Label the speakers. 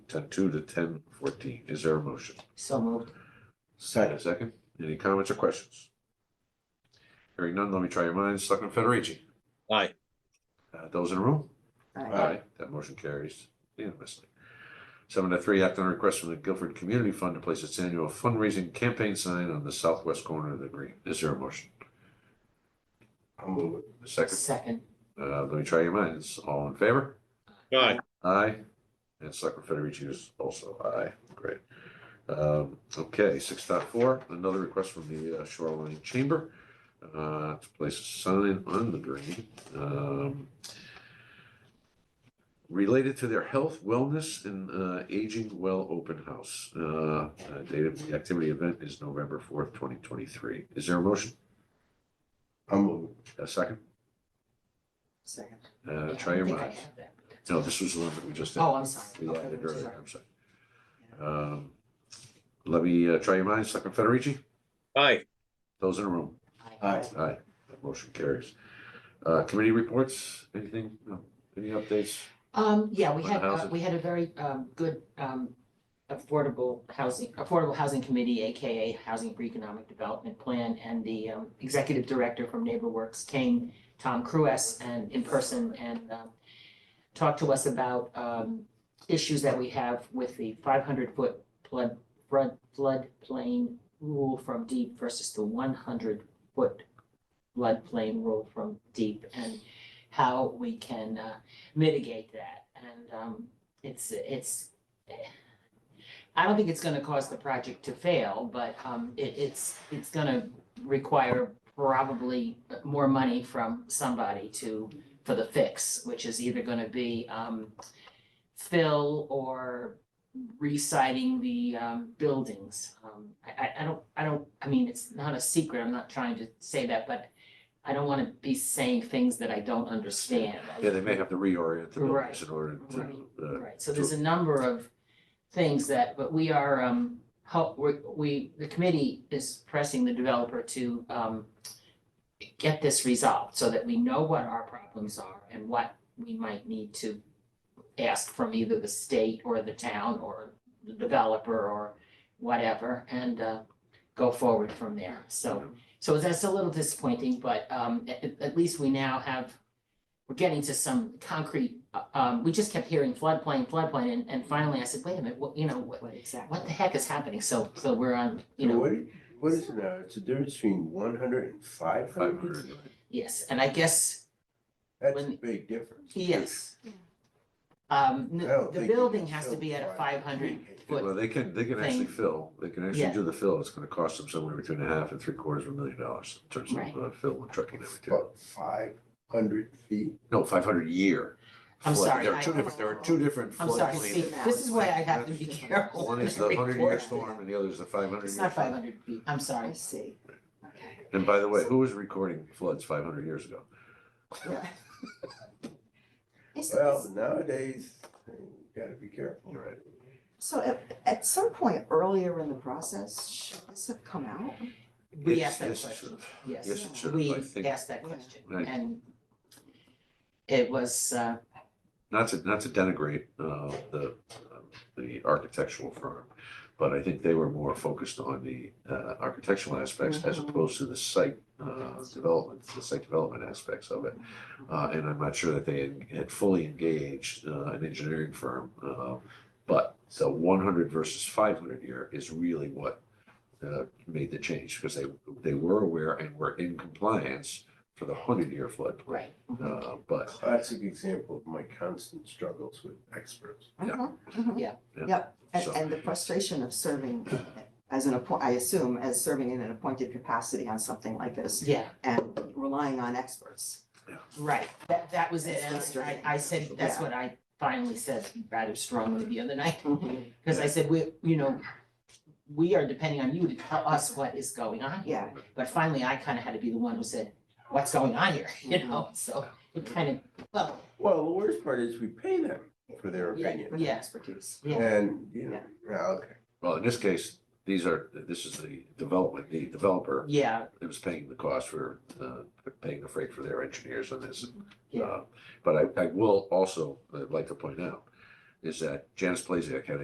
Speaker 1: ten Uh, two to ten fourteen. Is there a motion?
Speaker 2: So moved.
Speaker 1: Second. Second. Any comments or questions? Hearing none, let me try your minds. Selectman Federici?
Speaker 3: Aye.
Speaker 1: Uh, those in the room?
Speaker 2: Aye.
Speaker 1: That motion carries unanimously. Seven to three, act on a request from the Guilford Community Fund to place its annual fundraising campaign sign on the southwest corner of the green. Is there a motion? I'll move it. Second,
Speaker 2: Second.
Speaker 1: uh, let me try your minds. All in favor?
Speaker 3: Aye.
Speaker 1: Aye. And Selectman Federici is also aye. Great. Um, okay, six dot four, another request from the uh, Shoreline Chamber uh, to place a sign on the green. um, Related to their health, wellness, and uh, aging well open house. Uh, uh, Date of the activity event is November fourth, twenty twenty-three. Is there a motion? I'll move. A second?
Speaker 2: Second.
Speaker 1: Uh,
Speaker 2: Yeah,
Speaker 1: Try
Speaker 2: I
Speaker 1: your
Speaker 2: think I
Speaker 1: minds.
Speaker 2: have that.
Speaker 1: No, this was the one that we just did.
Speaker 2: Oh, I'm sorry.
Speaker 1: We
Speaker 2: Okay,
Speaker 1: added
Speaker 2: I'm
Speaker 1: earlier,
Speaker 2: sorry.
Speaker 1: I'm sorry. Um, Let me uh, try your minds, Selectman Federici,
Speaker 3: Aye.
Speaker 1: those in the room.
Speaker 2: Aye.
Speaker 1: Aye, that motion carries. Uh, committee reports, anything, No. any updates?
Speaker 2: Um, yeah, we
Speaker 1: For the
Speaker 2: had, uh,
Speaker 1: housing.
Speaker 2: we had a very, um, good, um, affordable housing, Affordable Housing Committee, AKA Housing for Economic Development Plan, and the, um, executive director from NeighborWorks came, Tom Cruess, and in person, and, um, talked to us about, um, issues that we have with the five hundred foot flood, flood, floodplain rule from deep versus the one hundred foot floodplain rule from deep, and how we can, uh, mitigate that. And um, it's, it's, I don't think it's gonna cause the project to fail, but um, it, it's, it's gonna require probably more money from somebody to, for the fix, which is either gonna be um, fill or reciting the um, buildings. Um, I, I, I don't, I don't, I mean, it's not a secret, I'm not trying to say that, but I don't wanna be saying things that I don't understand.
Speaker 1: Yeah, they may have to reorient the buildings
Speaker 2: Right,
Speaker 1: in order to, uh,
Speaker 2: Right, so there's a number of things that, but we are, um, help, we, we, the committee is pressing the developer to, um, get this resolved so that we know what our problems are and what we might need to ask from either the state or the town or the developer or whatever, and, uh, go forward from there, so. So that's a little disappointing, but um at at least we now have, we're getting to some concrete, uh, um, we just kept hearing floodplain, floodplain, and and finally I said, wait a minute, what, you know, what,
Speaker 4: What exactly?
Speaker 2: what the heck is happening? So so we're on, you
Speaker 5: So
Speaker 2: know,
Speaker 5: What, what is it now? It's a difference between one hundred and five
Speaker 1: five
Speaker 5: hundred?
Speaker 1: hundred.
Speaker 2: yes, and I guess,
Speaker 5: That's a
Speaker 2: When-
Speaker 5: big difference.
Speaker 2: yes. Um,
Speaker 5: I
Speaker 2: n-
Speaker 5: don't
Speaker 2: the
Speaker 5: think you
Speaker 2: building
Speaker 5: can
Speaker 2: has to
Speaker 5: build
Speaker 2: be at a five
Speaker 5: 500.
Speaker 2: hundred
Speaker 1: Well,
Speaker 2: foot,
Speaker 1: they can, they can actually
Speaker 2: Thing.
Speaker 1: fill, they can
Speaker 2: Yeah.
Speaker 1: actually do the fill, it's gonna cost them somewhere between a half and three quarters of a million dollars in terms
Speaker 2: Right.
Speaker 1: of uh, fill and trucking and everything.
Speaker 5: About five hundred feet.
Speaker 1: No, five hundred a year.
Speaker 2: I'm
Speaker 1: flood.
Speaker 2: sorry,
Speaker 1: There are
Speaker 2: I-
Speaker 1: two different, there are two different
Speaker 2: I'm sorry,
Speaker 1: floodplains.
Speaker 2: see, this is why I have to be careful.
Speaker 1: One is
Speaker 2: when
Speaker 1: the
Speaker 2: I
Speaker 1: hundred year
Speaker 2: record.
Speaker 1: storm and the other is the five hundred year.
Speaker 2: It's not
Speaker 1: flood.
Speaker 2: five hundred feet, I'm sorry.
Speaker 4: I see. Okay.
Speaker 1: And by the way, who was recording floods five hundred years ago?
Speaker 4: Is-
Speaker 5: Well, nowadays, you gotta be careful.
Speaker 1: You're right.
Speaker 4: So at, at some point earlier in the process, should this have come out?
Speaker 2: We
Speaker 1: It's-
Speaker 2: asked that
Speaker 1: yes, it
Speaker 2: question,
Speaker 1: should've.
Speaker 2: yes.
Speaker 1: Yes, it should
Speaker 2: we
Speaker 1: have, I think.
Speaker 2: asked that
Speaker 4: Yeah.
Speaker 2: question
Speaker 1: Right.
Speaker 2: and it was, uh,
Speaker 1: Not to, not to denigrate, uh, the, um, the architectural firm, but I think they were more focused on the, uh, architectural aspects as
Speaker 4: Mhm.
Speaker 1: opposed to the site, uh, development, the site development aspects of it. Uh, and I'm not sure that they had- had fully engaged, uh, an engineering firm, uh, but the one hundred versus five hundred year is really what, uh, made the change, because they, they were aware and were in compliance for the hundred year floodplain.
Speaker 2: right,
Speaker 1: Uh, but
Speaker 5: Classic example of my constant struggles with experts.
Speaker 1: Yeah.
Speaker 4: Mhm, mhm.
Speaker 2: Yeah.
Speaker 4: Yep, and,
Speaker 1: So-
Speaker 4: and the frustration of serving as an appoint, I assume, as serving in an appointed capacity on something like this
Speaker 2: yeah,
Speaker 4: and relying on experts.
Speaker 2: right, that, that was it,
Speaker 4: It's
Speaker 2: and I,
Speaker 4: frustrating.
Speaker 2: I said, that's
Speaker 4: Yeah.
Speaker 2: what I finally said rather strongly the other night,
Speaker 4: Mhm,
Speaker 2: because I said, we, you know, we are depending on you to tell us what is going on here,
Speaker 4: Yeah,
Speaker 2: but finally I kind of had to be the one who said, what's going on here, you know, so it kind of, well,
Speaker 5: Well, the worst part is we pay them for their
Speaker 2: Yeah.
Speaker 5: opinion.
Speaker 4: with their
Speaker 2: Yeah.
Speaker 4: expertise.
Speaker 2: Yeah.
Speaker 5: And, you know, yeah, okay.
Speaker 1: Well, in this case, these are, this is the development, the developer
Speaker 2: yeah,
Speaker 1: that was paying the cost for, uh, paying the freight for their engineers on this.
Speaker 2: Yeah.
Speaker 1: Uh, But I, I will also, uh like to point out, is that Janice Plazek had a